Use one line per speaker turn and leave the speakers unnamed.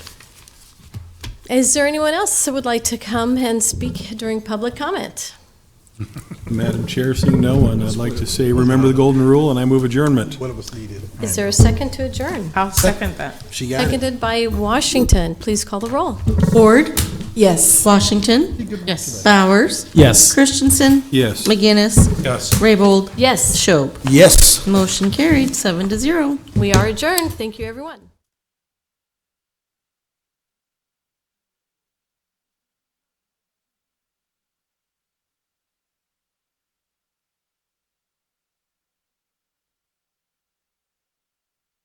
Is there anyone else that would like to come and speak during public comment?
Madam Chair, seeing no one, I'd like to say, remember the golden rule, and I move adjournment.
One of us needed.
Is there a second to adjourn?
I'll second that.
She got it.
Seconded by Washington. Please call the roll.
Ford,
Yes.
Washington,
Yes.
Bowers,
Yes.
Christensen,
Yes.
McGinnis,
Yes.
Raybold,
Yes,
Schob.
Yes.
Motion carried, seven to zero.
we are adjourned. Thank you, everyone.